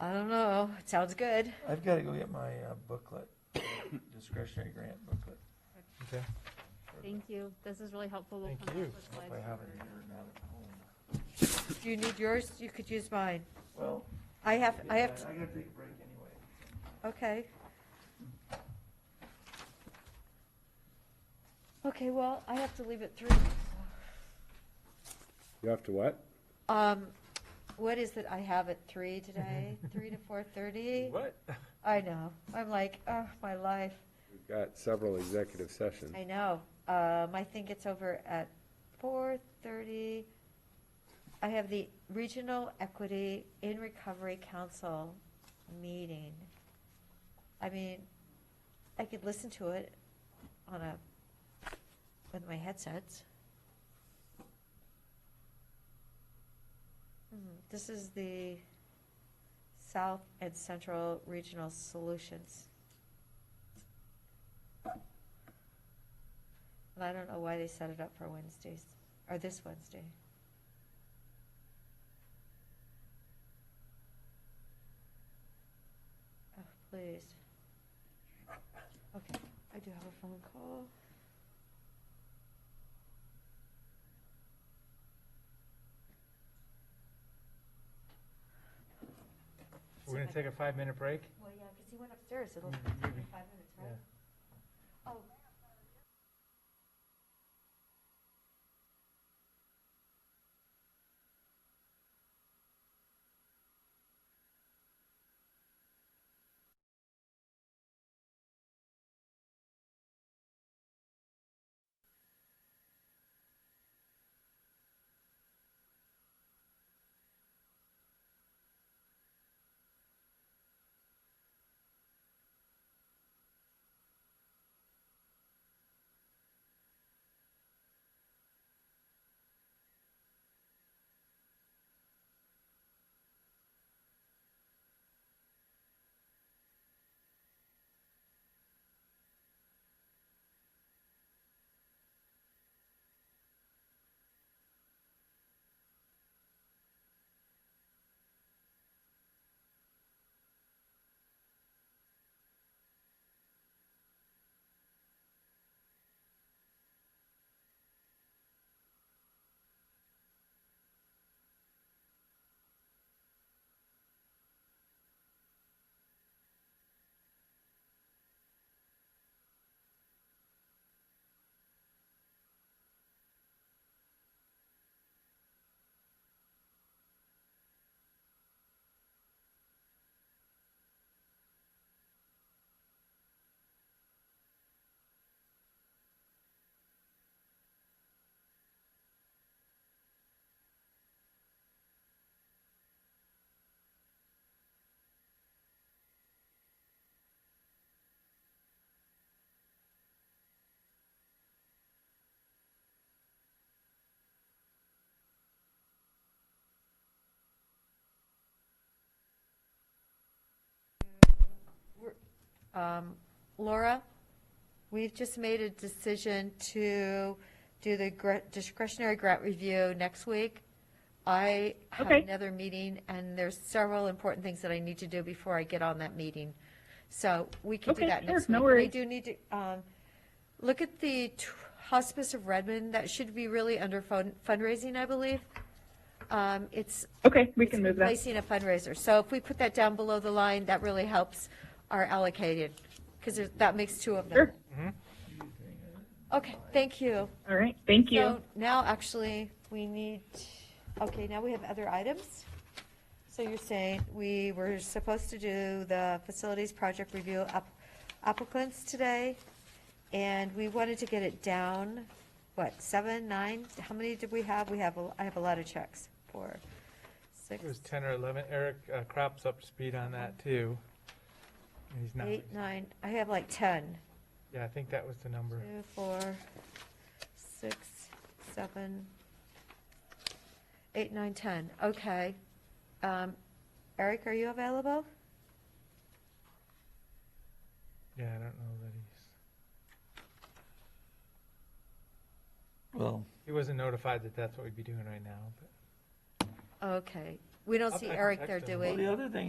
I don't know. It sounds good. I've gotta go get my uh, booklet, discretionary grant booklet. Okay. Thank you. This is really helpful. We'll Thank come up you. with Hope slides I have it for- here, not at home. Do you need yours? You could use mine. Well. I have, I have, I gotta take a break anyway. okay. Okay, well, I have to leave at three. You have to what? Um, what is it? I have at three today, three to four thirty? What? I know. I'm like, oh, my life. We've got several executive sessions. I know. Um, I think it's over at four thirty. I have the Regional Equity in Recovery Council meeting. I mean, I could listen to it on a, with my headsets. Mhm. This is the South and Central Regional Solutions. And I don't know why they set it up for Wednesdays, or this Wednesday. Oh, please. Okay, I do have a phone call. We're gonna take a five-minute break? Well, yeah, because he went upstairs, it'll Mm, take Mm-hmm. him five maybe. minutes, right? Yeah. Oh, um, Laura, we've just made a decision to do the gra- discretionary grant review next week. I have Okay. another meeting, and there's several important things that I need to do before I get on that meeting. So we can do Okay, that sure, next week. no worries. We do need to, um, look at the t- Hospice of Redmond, that should be really under fun- fundraising, I believe. Um, It's Okay, we can it's move that. Replacing a fundraiser. So if we put that down below the line, that really helps our allocated, because that makes two of them. Sure. Mm-hmm. Okay, thank you. All right, thank you. So now, actually, we need, okay, now we have other items. So you're saying we were supposed to do the facilities project review app- applicants today, and we wanted to get it down, what, seven, nine? How many did we have? We have, a- I have a lot of checks, four, six. It was 10 or 11. Eric uh, Crop's up to speed on that, too. And He's not. Eight, nine, I have like 10. Yeah, I think that was the number. Two, four, six, seven, eight, nine, 10. Okay. Um, Eric, are you available? Yeah, I don't know that he's, Well, he wasn't notified that that's what we'd be doing right now, but. Okay. We don't I'll see check- Eric text there, do him. we? Well, the other thing